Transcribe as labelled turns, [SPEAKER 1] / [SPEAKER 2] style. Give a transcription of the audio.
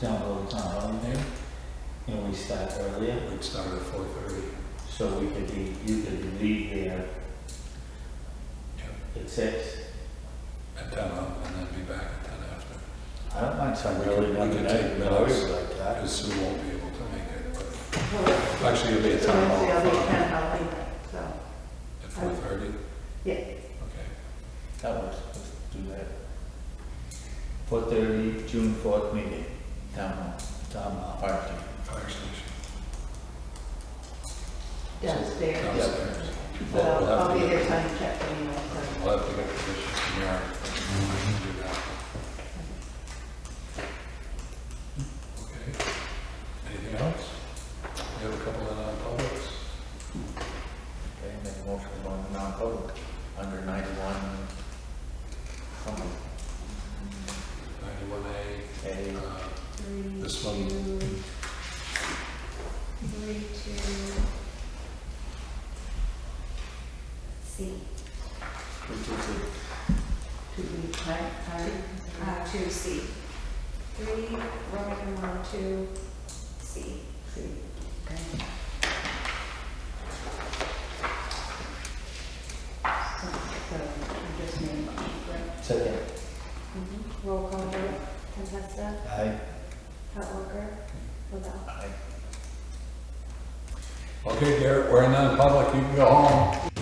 [SPEAKER 1] down below the town hall there, and we start earlier,
[SPEAKER 2] We'd start at four thirty.
[SPEAKER 1] so we could be, you could leave there at six.
[SPEAKER 2] At ten up, and then be back at ten after.
[SPEAKER 1] I don't mind starting
[SPEAKER 2] We
[SPEAKER 1] early
[SPEAKER 2] could- we
[SPEAKER 1] another
[SPEAKER 2] could
[SPEAKER 1] day,
[SPEAKER 2] take
[SPEAKER 1] but I always
[SPEAKER 2] minutes.
[SPEAKER 1] like that.
[SPEAKER 2] Because Sue won't be able to make it, but
[SPEAKER 3] So
[SPEAKER 2] actually, it'll be at
[SPEAKER 3] it's
[SPEAKER 2] ten
[SPEAKER 3] Wednesday, I'll be
[SPEAKER 2] o'clock.
[SPEAKER 3] at ten, I'll be, so,
[SPEAKER 2] At four thirty?
[SPEAKER 3] Yeah.
[SPEAKER 2] Okay.
[SPEAKER 1] That works, let's do that. Four thirty, June fourth meeting, town hall, town hall, fire chief.
[SPEAKER 2] Fire station.
[SPEAKER 3] downstairs.
[SPEAKER 2] Downstairs.
[SPEAKER 3] But
[SPEAKER 2] Well,
[SPEAKER 3] I'll,
[SPEAKER 2] we'll have
[SPEAKER 3] I'll
[SPEAKER 2] to
[SPEAKER 3] be
[SPEAKER 2] get-
[SPEAKER 3] there time to check anyway, so.
[SPEAKER 2] We'll have to get permission from Eric. but we can do that. Okay. Anything else? We have a couple of non-publics.
[SPEAKER 1] Okay, make a motion to go into non-public, under ninety-one, something,
[SPEAKER 2] Ninety-one A,
[SPEAKER 1] A,
[SPEAKER 2] uh,
[SPEAKER 4] Three,
[SPEAKER 2] This one.
[SPEAKER 4] two, three, two. C,
[SPEAKER 1] two, two, two.
[SPEAKER 3] To be, time, time.
[SPEAKER 4] uh, two C. Three, Roman numeral two, C.
[SPEAKER 3] Okay. So, so you just need a motion, right?
[SPEAKER 1] Second,
[SPEAKER 4] Roll call vote, Contessa,
[SPEAKER 1] aye,
[SPEAKER 4] Howard, Lavelle.
[SPEAKER 1] aye.
[SPEAKER 2] Okay, Garrett, we're in non-public, you can go home.